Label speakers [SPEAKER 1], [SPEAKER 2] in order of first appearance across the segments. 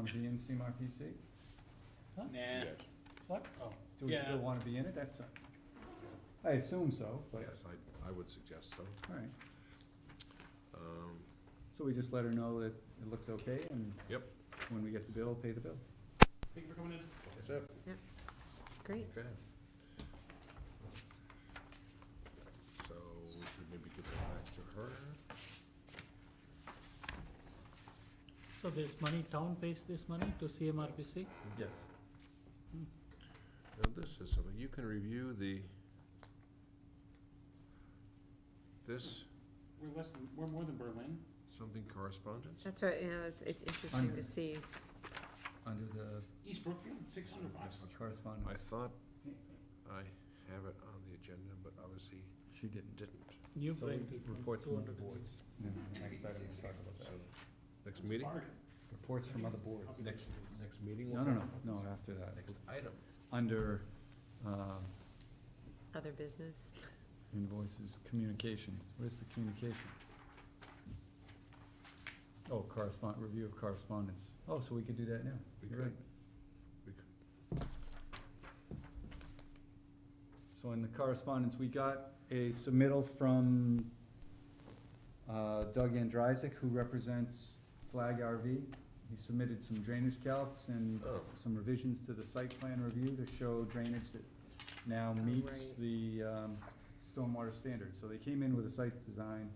[SPEAKER 1] be in CMRPC?
[SPEAKER 2] Nah.
[SPEAKER 3] Yes.
[SPEAKER 2] What? Oh.
[SPEAKER 1] Do we still
[SPEAKER 2] Yeah.
[SPEAKER 1] wanna be in it? That's, I assume so, but,
[SPEAKER 3] Oh, Yes, I, I would suggest so.
[SPEAKER 1] alright.
[SPEAKER 3] Um,
[SPEAKER 1] So we just let her know that it looks okay and
[SPEAKER 3] Yep.
[SPEAKER 1] when we get the bill, pay the bill.
[SPEAKER 2] Thank you for coming in.
[SPEAKER 3] That's it.
[SPEAKER 4] Great.
[SPEAKER 3] Okay. So we should maybe give that back to her.
[SPEAKER 2] So this money, town pays this money to CMRPC?
[SPEAKER 1] Yes.
[SPEAKER 3] Now, this is something, you can review the, this,
[SPEAKER 2] We're less than, we're more than Berlin.
[SPEAKER 3] something correspondence?
[SPEAKER 4] That's right, yeah, it's, it's interesting
[SPEAKER 1] Under-
[SPEAKER 4] to see.
[SPEAKER 1] Under the
[SPEAKER 2] East Brookfield, six hundred bucks.
[SPEAKER 3] I
[SPEAKER 1] correspondence,
[SPEAKER 3] thought I have it on the agenda, but obviously
[SPEAKER 1] she didn't.
[SPEAKER 3] didn't.
[SPEAKER 2] New
[SPEAKER 1] So we
[SPEAKER 2] brain treatment,
[SPEAKER 1] reports from the
[SPEAKER 2] 200
[SPEAKER 1] boards. And then the next item, we'll talk about
[SPEAKER 3] So,
[SPEAKER 1] that.
[SPEAKER 3] next meeting?
[SPEAKER 1] Reports from other boards.
[SPEAKER 3] Next, next meeting?
[SPEAKER 1] No,
[SPEAKER 3] we'll
[SPEAKER 1] no, no,
[SPEAKER 3] talk about
[SPEAKER 1] no, after that.
[SPEAKER 3] Next item.
[SPEAKER 1] Under, um,
[SPEAKER 4] Other business.
[SPEAKER 1] Invoices, communication, where's the communication? Oh, correspond, review of correspondence, oh, so we could do that now,
[SPEAKER 3] We
[SPEAKER 1] you're right.
[SPEAKER 3] could. We could.
[SPEAKER 1] So in the correspondence, we got a submittal from uh, Doug Andrysik, who represents Flag RV. He submitted some drainage calcs and
[SPEAKER 3] Oh,
[SPEAKER 1] some revisions to the site plan review to show drainage that now meets
[SPEAKER 4] Oh, Right.
[SPEAKER 1] the um, stormwater standards. So they came in with a site design,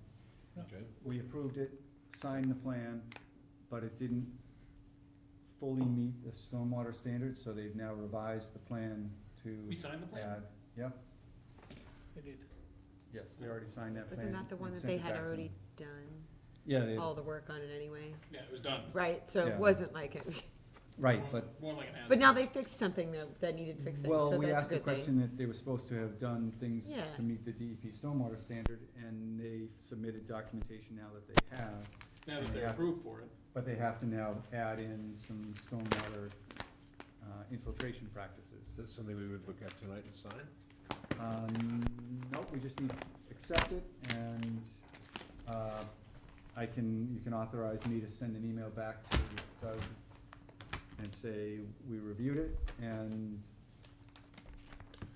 [SPEAKER 3] okay.
[SPEAKER 1] we approved it, signed the plan, but it didn't fully meet the stormwater standards, so they've now revised the plan
[SPEAKER 2] We
[SPEAKER 1] to
[SPEAKER 2] signed the plan?
[SPEAKER 1] add, yep.
[SPEAKER 2] I did.
[SPEAKER 1] Yes, we already signed that plan.
[SPEAKER 4] Wasn't that the
[SPEAKER 1] and
[SPEAKER 4] one that
[SPEAKER 1] sent
[SPEAKER 4] they
[SPEAKER 1] it
[SPEAKER 4] had
[SPEAKER 1] back to
[SPEAKER 4] already
[SPEAKER 1] them.
[SPEAKER 4] done,
[SPEAKER 1] Yeah, they,
[SPEAKER 4] all the work on it anyway?
[SPEAKER 2] Yeah, it was done.
[SPEAKER 4] Right, so
[SPEAKER 1] Yeah.
[SPEAKER 4] it wasn't like it,
[SPEAKER 1] right,
[SPEAKER 2] More-
[SPEAKER 1] but,
[SPEAKER 2] More like an ad.
[SPEAKER 4] but now they fixed something that, that needed fixing,
[SPEAKER 1] well,
[SPEAKER 4] so
[SPEAKER 1] we
[SPEAKER 4] that's
[SPEAKER 1] asked the
[SPEAKER 4] a good thing.
[SPEAKER 1] question that they were supposed to have done things
[SPEAKER 4] Yeah.
[SPEAKER 1] to meet the DEP stormwater standard, and they submitted documentation now that they have,
[SPEAKER 2] Now that they're
[SPEAKER 1] Yeah.
[SPEAKER 2] approved for it.
[SPEAKER 1] but they have to now add in some stormwater, uh, infiltration practices.
[SPEAKER 3] Is that something we would look at tonight and sign?
[SPEAKER 1] Um, nope, we just need to accept it, and, uh, I can, you can authorize me to send an email back to Doug and say, we reviewed it, and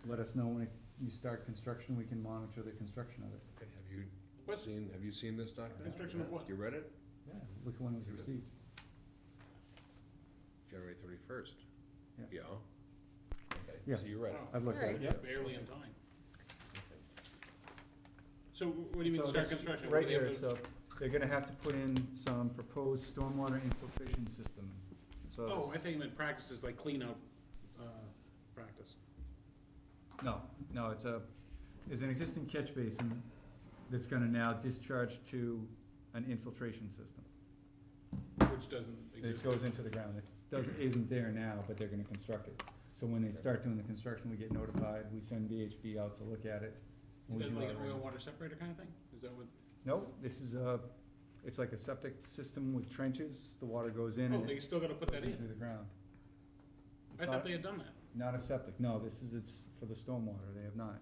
[SPEAKER 1] let us know when you start construction, we can monitor the construction of it.
[SPEAKER 3] Okay, Have you
[SPEAKER 2] What?
[SPEAKER 3] seen, have you seen this document?
[SPEAKER 2] Construction of
[SPEAKER 3] Yeah.
[SPEAKER 2] what?
[SPEAKER 3] You read it?
[SPEAKER 1] Yeah. Look at when it was received.
[SPEAKER 3] January thirty-first.
[SPEAKER 1] Yeah.
[SPEAKER 3] Yeah. Okay,
[SPEAKER 1] Yes.
[SPEAKER 3] So you read it.
[SPEAKER 2] Wow,
[SPEAKER 1] I've looked at it.
[SPEAKER 4] Alright.
[SPEAKER 2] Oh. Barely in time. So wh- what do you mean start
[SPEAKER 1] this-
[SPEAKER 2] construction? What
[SPEAKER 1] Right
[SPEAKER 2] do they have
[SPEAKER 1] here, uh,
[SPEAKER 2] to-
[SPEAKER 1] so they're gonna have to put in some proposed stormwater infiltration system, so.
[SPEAKER 2] Oh, I
[SPEAKER 1] it's-
[SPEAKER 2] think you meant practices like cleanup, uh, practice.
[SPEAKER 1] No, no, it's a, there's an existing catch basin that's gonna now discharge to an infiltration system.
[SPEAKER 2] Which doesn't
[SPEAKER 1] It
[SPEAKER 2] exist.
[SPEAKER 1] goes into the ground, it doesn't, isn't there now, but they're gonna construct it. So when they start doing the construction, we get notified, we send VHB out to look at it. and we
[SPEAKER 2] Is that
[SPEAKER 1] do
[SPEAKER 2] like an
[SPEAKER 1] our-
[SPEAKER 2] oil water separator kind of thing? Is that what,
[SPEAKER 1] Nope, this is a, it's like a septic system with trenches, the water goes in
[SPEAKER 2] oh,
[SPEAKER 1] and
[SPEAKER 2] they
[SPEAKER 1] it
[SPEAKER 2] still gotta put
[SPEAKER 1] goes
[SPEAKER 2] that
[SPEAKER 1] in
[SPEAKER 2] in?
[SPEAKER 1] through the ground. It's
[SPEAKER 2] I thought
[SPEAKER 1] not,
[SPEAKER 2] they had done that.
[SPEAKER 1] not a septic, no, this is, it's for the stormwater, they have not.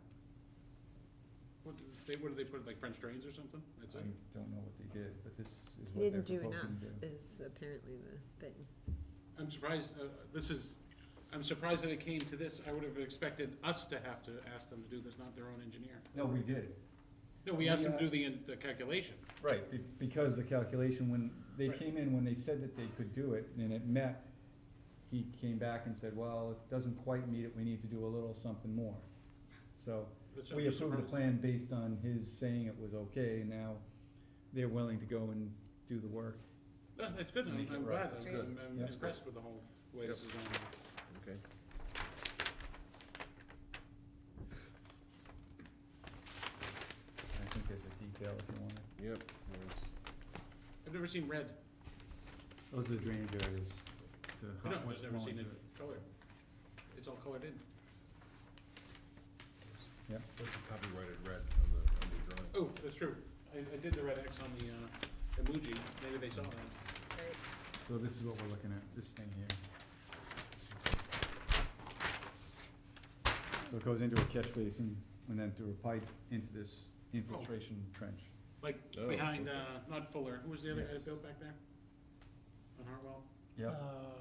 [SPEAKER 2] What, they, what did they put, like French drains or something? That's
[SPEAKER 1] I
[SPEAKER 2] it?
[SPEAKER 1] don't know what they did, but this is
[SPEAKER 4] They
[SPEAKER 1] what they're
[SPEAKER 4] Didn't do
[SPEAKER 1] proposing to do.
[SPEAKER 4] enough is apparently the thing.
[SPEAKER 2] I'm surprised, uh, this is, I'm surprised that it came to this. I would have expected us to have to ask them to do this, not their own engineer.
[SPEAKER 1] No, we did,
[SPEAKER 2] No, we asked them
[SPEAKER 1] uh,
[SPEAKER 2] to do the, the calculation.
[SPEAKER 1] Right, be- because the calculation, when, they
[SPEAKER 2] Right.
[SPEAKER 1] came in, when they said that they could do it, and it met, he came back and said, well, it doesn't quite meet it, we need to do a little something more. So,
[SPEAKER 2] That's-
[SPEAKER 1] we
[SPEAKER 2] I'm just
[SPEAKER 1] approved the plan
[SPEAKER 2] surprised.
[SPEAKER 1] based on his saying it was okay, and now they're willing to go and do the work.
[SPEAKER 2] Yeah, That's good,
[SPEAKER 1] To
[SPEAKER 2] I'm
[SPEAKER 1] make it
[SPEAKER 2] I'm
[SPEAKER 1] right.
[SPEAKER 2] glad,
[SPEAKER 4] That's
[SPEAKER 2] I'm,
[SPEAKER 4] good.
[SPEAKER 2] I'm- I'm
[SPEAKER 1] Yeah.
[SPEAKER 2] impressed with the whole way this is going.
[SPEAKER 3] Okay.
[SPEAKER 1] I think there's a detail if you want it.
[SPEAKER 3] Yep. there's-
[SPEAKER 2] I've never seen red,
[SPEAKER 1] Those are the drainage areas, so
[SPEAKER 2] no,
[SPEAKER 1] how,
[SPEAKER 2] I've
[SPEAKER 1] what's
[SPEAKER 2] just never
[SPEAKER 1] flowing
[SPEAKER 2] seen
[SPEAKER 1] to
[SPEAKER 2] it
[SPEAKER 1] it.
[SPEAKER 2] color. It's all colored in.
[SPEAKER 1] Yeah.
[SPEAKER 3] There's a copyrighted red on the, on the drawing.
[SPEAKER 2] Oh, that's true, I, I did the red X on the, uh, emoji, maybe they saw that.
[SPEAKER 1] So this is what we're looking at, this thing here. So it goes into a catch basin and then through a pipe into this infiltration trench.
[SPEAKER 3] Oh,
[SPEAKER 2] Like, behind,
[SPEAKER 3] okay.
[SPEAKER 2] uh, not Fuller, who was the other guy
[SPEAKER 1] Yes.
[SPEAKER 2] that built back there? On Hartwell?
[SPEAKER 1] Yep.